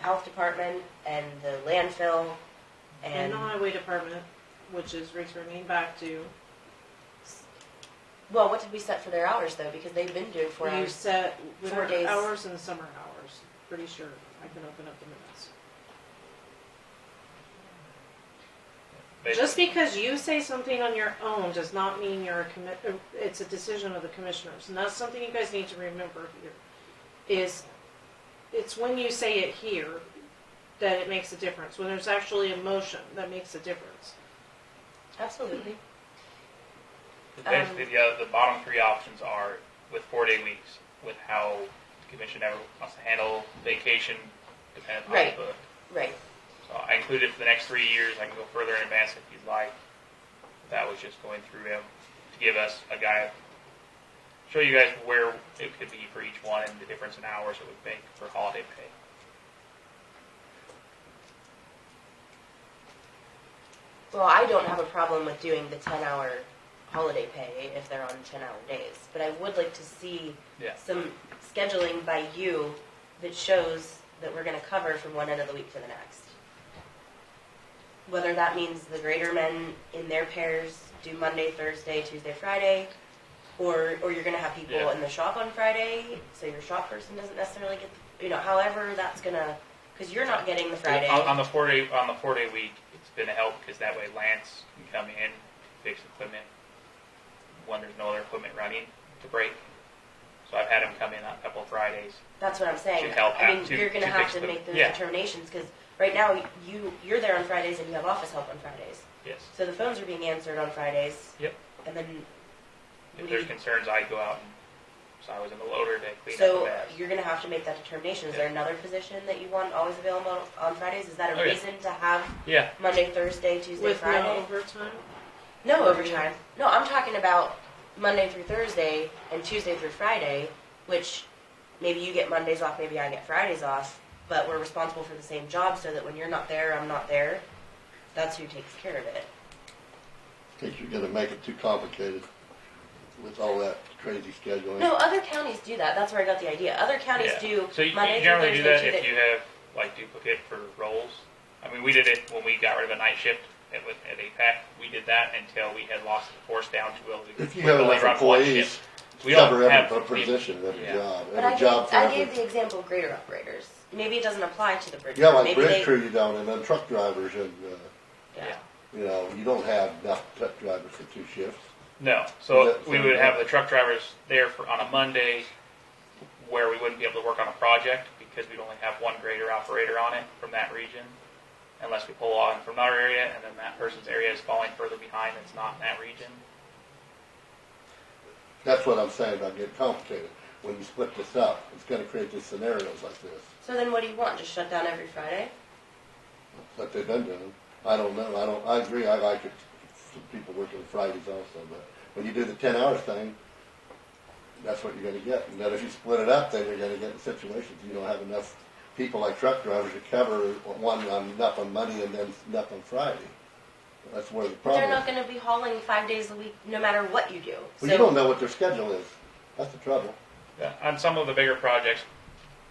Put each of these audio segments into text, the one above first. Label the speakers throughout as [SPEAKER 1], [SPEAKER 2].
[SPEAKER 1] health department and the landfill
[SPEAKER 2] And
[SPEAKER 1] and,
[SPEAKER 2] the highway department, which is returning back to,
[SPEAKER 1] well, what did we set for their hours though? Because they've been doing four
[SPEAKER 2] you
[SPEAKER 1] hours.
[SPEAKER 2] set
[SPEAKER 1] Four
[SPEAKER 2] winter
[SPEAKER 1] days.
[SPEAKER 2] hours and summer hours, pretty sure. I can open up the minutes. Just because you say something on your own does not mean you're a commit, uh, it's a decision of the commissioners. And that's something you guys need to remember here, is it's when you say it here that it makes a difference, when there's actually a motion that makes a difference.
[SPEAKER 1] Absolutely.
[SPEAKER 3] Basically, the, other- the bottom three options are with four-day weeks, with how the commission ever wants to handle vacation, depending on
[SPEAKER 1] Right.
[SPEAKER 3] the book.
[SPEAKER 1] Right.
[SPEAKER 3] So I included it for the next three years. I can go further in advance if you'd like. That was just going through him to give us a guide, show you guys where it could be for each one and the difference in hours it would make for holiday pay.
[SPEAKER 1] Well, I don't have a problem with doing the ten hour holiday pay if they're on ten hour days, but I would like to see
[SPEAKER 3] Yeah.
[SPEAKER 1] some scheduling by you that shows that we're gonna cover from one end of the week to the next. Whether that means the greater men in their pairs do Monday, Thursday, Tuesday, Friday, or, or you're gonna have people
[SPEAKER 3] Yeah.
[SPEAKER 1] in the shop on Friday, so your shop person doesn't necessarily get, the- you know, however that's gonna, cause you're not getting the Friday.
[SPEAKER 3] On, on the four day on the four day week, it's been a help because that way Lance can come in, fix equipment when there's no other equipment running to break. So I've had him come in on a couple Fridays.
[SPEAKER 1] That's what I'm saying.
[SPEAKER 3] To help
[SPEAKER 1] I
[SPEAKER 3] out,
[SPEAKER 1] mean,
[SPEAKER 3] to-
[SPEAKER 1] you're gonna
[SPEAKER 3] to
[SPEAKER 1] have
[SPEAKER 3] fix
[SPEAKER 1] to
[SPEAKER 3] the-
[SPEAKER 1] make those
[SPEAKER 3] yeah.
[SPEAKER 1] determinations, cause right now, you, you're there on Fridays and you have office help on Fridays.
[SPEAKER 3] Yes.
[SPEAKER 1] So the phones are being answered on Fridays.
[SPEAKER 3] Yep.
[SPEAKER 1] And then,
[SPEAKER 3] If there's concerns, I go out and so I was in the loader to clean up the
[SPEAKER 1] so
[SPEAKER 3] bags.
[SPEAKER 1] you're gonna have to make that determination. Is there another position that you want always available on Fridays? Is that a
[SPEAKER 3] Oh, yeah.
[SPEAKER 1] reason to have
[SPEAKER 3] Yeah.
[SPEAKER 1] Monday, Thursday, Tuesday,
[SPEAKER 2] With no
[SPEAKER 1] Friday?
[SPEAKER 2] overtime?
[SPEAKER 1] No overtime. No, I'm talking about Monday through Thursday and Tuesday through Friday, which maybe you get Mondays off, maybe I get Fridays off, but we're responsible for the same job so that when you're not there, I'm not there. That's who takes care of it.
[SPEAKER 4] Think you're gonna make it too complicated with all that crazy scheduling.
[SPEAKER 1] No, other counties do that. That's where I got the idea. Other counties
[SPEAKER 3] Yeah.
[SPEAKER 1] do
[SPEAKER 3] So you,
[SPEAKER 1] Monday
[SPEAKER 3] you
[SPEAKER 1] through
[SPEAKER 3] generally
[SPEAKER 1] Thursday.
[SPEAKER 3] do that
[SPEAKER 1] Tuesday-
[SPEAKER 3] if you have like duplicate for roles. I mean, we did it when we got rid of a night shift at, with- at APAC. We did that until we had lost the force down to where we
[SPEAKER 4] If you
[SPEAKER 3] we
[SPEAKER 4] have
[SPEAKER 3] only
[SPEAKER 4] enough
[SPEAKER 3] run one
[SPEAKER 4] employees,
[SPEAKER 3] shift. We don't
[SPEAKER 4] cover
[SPEAKER 3] have
[SPEAKER 4] every
[SPEAKER 3] people.
[SPEAKER 4] position, every
[SPEAKER 3] Yeah.
[SPEAKER 4] job,
[SPEAKER 1] but I
[SPEAKER 4] every
[SPEAKER 1] gave,
[SPEAKER 4] job for
[SPEAKER 1] I gave
[SPEAKER 4] every.
[SPEAKER 1] the example of grader operators. Maybe it doesn't apply to the bridge.
[SPEAKER 4] Yeah,
[SPEAKER 1] crew.
[SPEAKER 4] like
[SPEAKER 1] Maybe they-
[SPEAKER 4] bridge crew you don't, and then truck drivers and, uh,
[SPEAKER 1] Yeah.
[SPEAKER 4] you know, you don't have enough truck drivers for two shifts.
[SPEAKER 3] No, so
[SPEAKER 4] Is that
[SPEAKER 3] we would have the truck drivers there for, on a Monday where we wouldn't be able to work on a project because we'd only have one grader operator on it from that region unless we pull on from our area and then that person's area is falling further behind that's not in that region.
[SPEAKER 4] That's what I'm saying about getting complicated. When you split this up, it's gonna create these scenarios like this,
[SPEAKER 1] So then what do you want? Just shut down every Friday?
[SPEAKER 4] like they've been doing. I don't know, I don't, I agree, I like it, for people working Fridays also, but when you do the ten hour thing, that's what you're gonna get. And then if you split it up, then you're gonna get in situations, you don't have enough people like truck drivers to cover one on, enough on Monday and then enough on Friday. That's where the
[SPEAKER 1] But they're
[SPEAKER 4] problem
[SPEAKER 1] not
[SPEAKER 4] is.
[SPEAKER 1] going to be hauling five days a week, no matter what you do.
[SPEAKER 4] Well,
[SPEAKER 1] so,
[SPEAKER 4] you don't know what their schedule is, that's the trouble.
[SPEAKER 3] Yeah, On some of the bigger projects,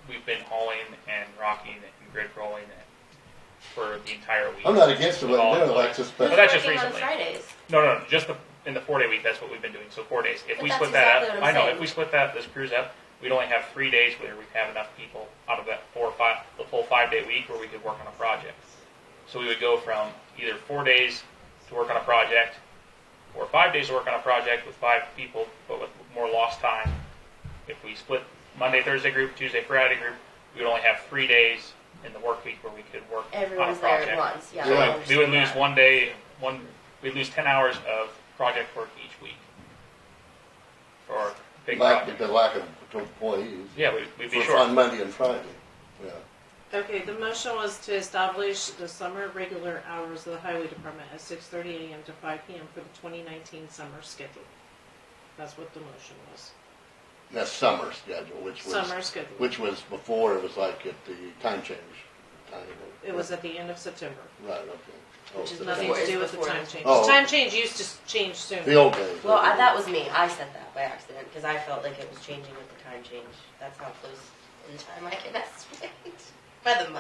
[SPEAKER 3] we've been hauling and rocking and grid rolling for the entire week.
[SPEAKER 4] I'm not against it,
[SPEAKER 3] With all
[SPEAKER 4] what they're doing, like
[SPEAKER 3] employees.
[SPEAKER 4] this,
[SPEAKER 1] Who's
[SPEAKER 4] but
[SPEAKER 3] Well, that's just
[SPEAKER 1] working on
[SPEAKER 3] recently.
[SPEAKER 1] Fridays?
[SPEAKER 3] No, no, just the, in the four day week, that's what we've been doing, so four days. If
[SPEAKER 1] But
[SPEAKER 3] we
[SPEAKER 1] that's
[SPEAKER 3] split that
[SPEAKER 1] exactly
[SPEAKER 3] up,
[SPEAKER 1] what
[SPEAKER 3] I
[SPEAKER 1] I'm
[SPEAKER 3] know,
[SPEAKER 1] saying.
[SPEAKER 3] if we split that, this cruise up, we'd only have three days where we have enough people out of that four or five, the full five day week where we could work on a project. So we would go from either four days to work on a project, or five days to work on a project with five people, but with more lost time. If we split Monday, Thursday group, Tuesday, Friday group, we would only have three days in the work week where we could work on a
[SPEAKER 1] Everyone's there
[SPEAKER 3] project.
[SPEAKER 1] at once. Yeah. I
[SPEAKER 3] So
[SPEAKER 4] Yeah.
[SPEAKER 1] understand
[SPEAKER 3] we would lose
[SPEAKER 1] that.
[SPEAKER 3] one day, one, we'd lose ten hours of project work each week. For big
[SPEAKER 4] lack,
[SPEAKER 3] projects.
[SPEAKER 4] the lack of employees.
[SPEAKER 3] Yeah, we'd, we'd be
[SPEAKER 4] For
[SPEAKER 3] short.
[SPEAKER 4] on Monday and Friday, yeah.
[SPEAKER 2] Okay, the motion was to establish the summer regular hours of the highway department at six thirty AM to five PM for the twenty nineteen summer schedule. That's what the motion was,
[SPEAKER 4] That's summer schedule, which was.
[SPEAKER 2] summer schedule.
[SPEAKER 4] Which was before, it was like at the time change. time.
[SPEAKER 2] It was at the end of September,
[SPEAKER 4] Right, okay. Oh,
[SPEAKER 2] which is
[SPEAKER 4] so
[SPEAKER 2] nothing
[SPEAKER 1] before-
[SPEAKER 2] to do with the
[SPEAKER 1] before.
[SPEAKER 2] time change.
[SPEAKER 4] Oh.
[SPEAKER 2] Time change used to s- change
[SPEAKER 4] The
[SPEAKER 2] soon.
[SPEAKER 4] old days.
[SPEAKER 1] Well, I, that was me. I said that by accident because I felt like it was changing with the time change. That's how close in time I can estimate by the month.